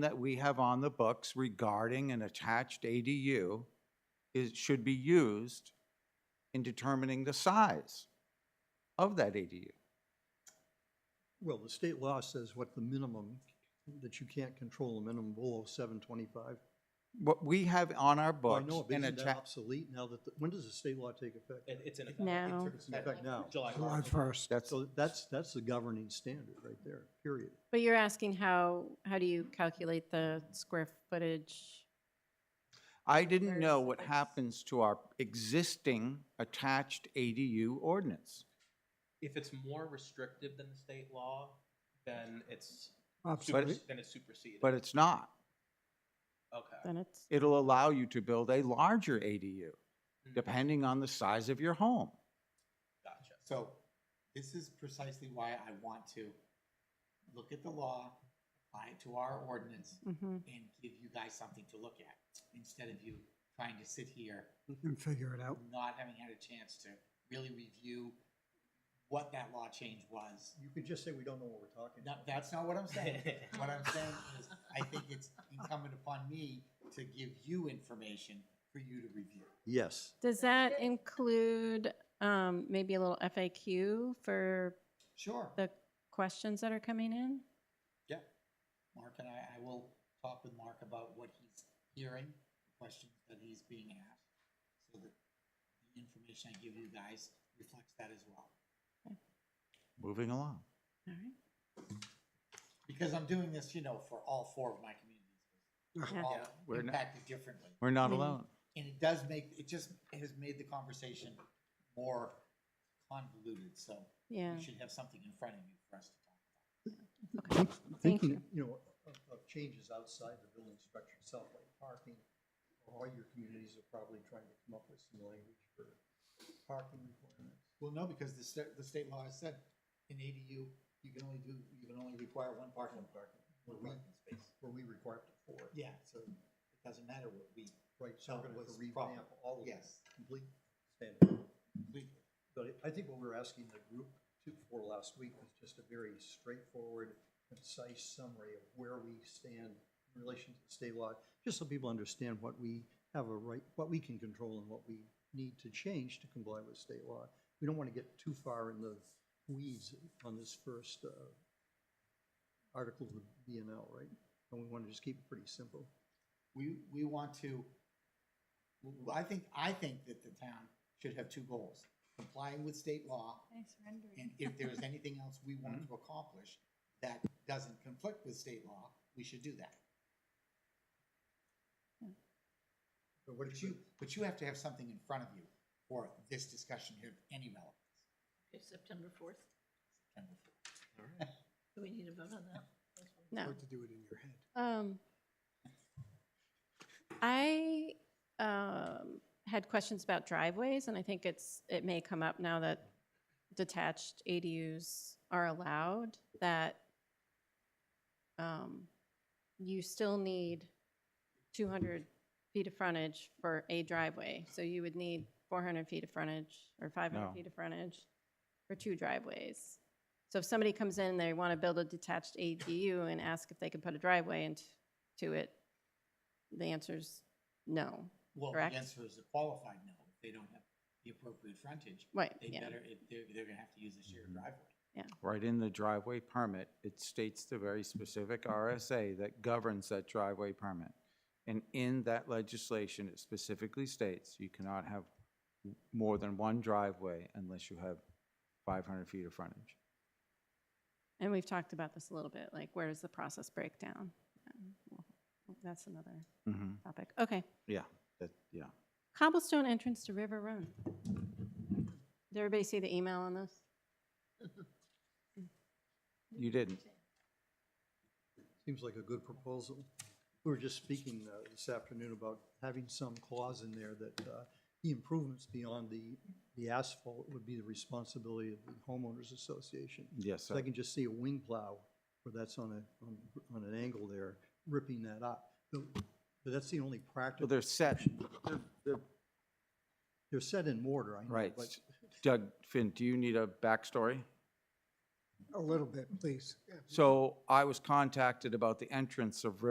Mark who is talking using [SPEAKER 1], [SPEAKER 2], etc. [SPEAKER 1] that we have on the books regarding an attached ADU is, should be used in determining the size of that ADU.
[SPEAKER 2] Well, the state law says what the minimum, that you can't control the minimum below seven twenty-five.
[SPEAKER 1] What we have on our
[SPEAKER 2] I
[SPEAKER 1] books.
[SPEAKER 2] know, but
[SPEAKER 1] an
[SPEAKER 2] isn't that
[SPEAKER 1] atta-
[SPEAKER 2] obsolete now that, the- when does the state law take effect?
[SPEAKER 3] It, it's in effect.
[SPEAKER 4] No.
[SPEAKER 3] It's in
[SPEAKER 2] It's in effect now.
[SPEAKER 3] July
[SPEAKER 5] July
[SPEAKER 3] first.
[SPEAKER 5] first.
[SPEAKER 1] That's,
[SPEAKER 2] So that's, that's the governing standard right there, period.
[SPEAKER 4] But you're asking how, how do you calculate the square footage?
[SPEAKER 1] I didn't
[SPEAKER 4] There's-
[SPEAKER 1] know what
[SPEAKER 4] it's-
[SPEAKER 1] happens to our existing attached ADU ordinance.
[SPEAKER 3] If it's more restrictive than the state law, then it's, super-
[SPEAKER 5] Obsolete.
[SPEAKER 3] then it's superseded.
[SPEAKER 1] But it's not.
[SPEAKER 3] Okay.
[SPEAKER 4] Then it's,
[SPEAKER 1] It'll allow you to build a larger ADU, depending on the size of your home.
[SPEAKER 3] Gotcha.
[SPEAKER 6] So this is precisely why I want to look at the law, apply it to our ordinance,
[SPEAKER 4] mhm.
[SPEAKER 6] and give you guys something to look at, instead of you trying to sit here,
[SPEAKER 5] And figure it out.
[SPEAKER 6] not having had a chance to really review what that law change was.
[SPEAKER 2] You could just say we don't know what we're talking
[SPEAKER 6] No,
[SPEAKER 2] about.
[SPEAKER 6] that's not what I'm saying. What I'm saying is, I think it's incumbent upon me to give you information for you to review.
[SPEAKER 2] Yes,
[SPEAKER 4] Does that include um, maybe a little FAQ for
[SPEAKER 6] Sure.
[SPEAKER 4] the questions that are coming in?
[SPEAKER 6] Yeah, Mark and I, I will talk with Mark about what he's hearing, questions that he's being asked, so that the information I give you guys reflects that as well.
[SPEAKER 1] Moving along.
[SPEAKER 4] All
[SPEAKER 6] Because I'm doing this, you know, for all four of my communities.
[SPEAKER 4] Yeah.
[SPEAKER 6] They're all
[SPEAKER 1] We're not-
[SPEAKER 6] impacted differently.
[SPEAKER 1] We're not
[SPEAKER 4] Mhm.
[SPEAKER 1] alone.
[SPEAKER 6] And it does make, it just has made the conversation more convoluted, so
[SPEAKER 4] Yeah,
[SPEAKER 6] you should have something in front of you for us to talk about.
[SPEAKER 4] okay, thank you.
[SPEAKER 2] thinking, you know, of, of changes outside the building structure itself, like parking. All your communities are probably trying to come up with some language for parking requirements.
[SPEAKER 6] Well, no, because the state, the state law has said, in ADU, you can only do, you can only require one parking.
[SPEAKER 2] Where
[SPEAKER 6] One
[SPEAKER 2] we,
[SPEAKER 6] parking space.
[SPEAKER 2] where we require up to four.
[SPEAKER 6] Yeah, so it doesn't matter what we,
[SPEAKER 2] Right, so we're gonna have to
[SPEAKER 6] was
[SPEAKER 2] revamp
[SPEAKER 6] proper.
[SPEAKER 2] all of that,
[SPEAKER 6] yes,
[SPEAKER 2] complete standard.
[SPEAKER 6] we,
[SPEAKER 2] But I- I think what we were asking the group to, for last week was just a very straightforward, concise summary of where we stand in relation to the state law, just so people understand what we have a right, what we can control and what we need to change to comply with state law. We don't want to get too far in the weeds on this first uh, article of the BNL, right? And we want to just keep it pretty simple.
[SPEAKER 6] we, we want to, w- I think, I think that the town should have two goals. Complying with state law, and if there is anything else we want to accomplish that doesn't conflict with state law, we should do that.
[SPEAKER 2] But what
[SPEAKER 6] But you, but you have to have something in front of you for this discussion here, of any relevance.
[SPEAKER 7] It's September fourth.
[SPEAKER 6] September fourth.
[SPEAKER 7] Do we need a vote on that?
[SPEAKER 4] No.
[SPEAKER 5] Hard to do it in your head.
[SPEAKER 4] Um, I um, had questions about driveways, and I think it's, it may come up now that detached ADUs are allowed, that um, you still need 200 feet of frontage for a driveway. So you would need 400 feet of frontage or 500
[SPEAKER 1] No.
[SPEAKER 4] feet of frontage for two driveways. So if somebody comes in, they want to build a detached ADU and ask if they can put a driveway into it, the answer's no.
[SPEAKER 6] Well,
[SPEAKER 4] Correct?
[SPEAKER 6] the answer is a qualified no. If They don't have the appropriate frontage.
[SPEAKER 4] Right,
[SPEAKER 6] They
[SPEAKER 4] yeah,
[SPEAKER 6] better, if they're, they're gonna have to use a
[SPEAKER 5] Mm-hmm.
[SPEAKER 6] shared driveway.
[SPEAKER 1] Right in the driveway permit, it states the very specific RSA that governs that driveway permit. And in that legislation, it specifically states you cannot have more than one driveway unless you have 500 feet of frontage.
[SPEAKER 4] and we've talked about this a little bit, like where does the process break down? Um, well, That's another
[SPEAKER 1] Mm-hmm.
[SPEAKER 4] topic. Okay.
[SPEAKER 1] Yeah, that, yeah.
[SPEAKER 4] Cobblestone entrance to River Run. Did everybody see the email on this?
[SPEAKER 1] You didn't.
[SPEAKER 2] Seems like a good proposal. We were just speaking uh, this afternoon about having some clause in there that uh, the improvements beyond the, the asphalt would be the responsibility of the homeowners association.
[SPEAKER 1] Yes,
[SPEAKER 2] So I
[SPEAKER 1] sir.
[SPEAKER 2] can just see a wing plow where that's on a, on, on an angle there, ripping that up. But but that's the only
[SPEAKER 1] Well,
[SPEAKER 2] practical,
[SPEAKER 1] they're set,
[SPEAKER 2] they're set in mortar, I know.
[SPEAKER 1] right.
[SPEAKER 2] but-
[SPEAKER 1] Doug, Finn, do you need a backstory?
[SPEAKER 5] A little bit, please.
[SPEAKER 1] So I was contacted about the entrance of River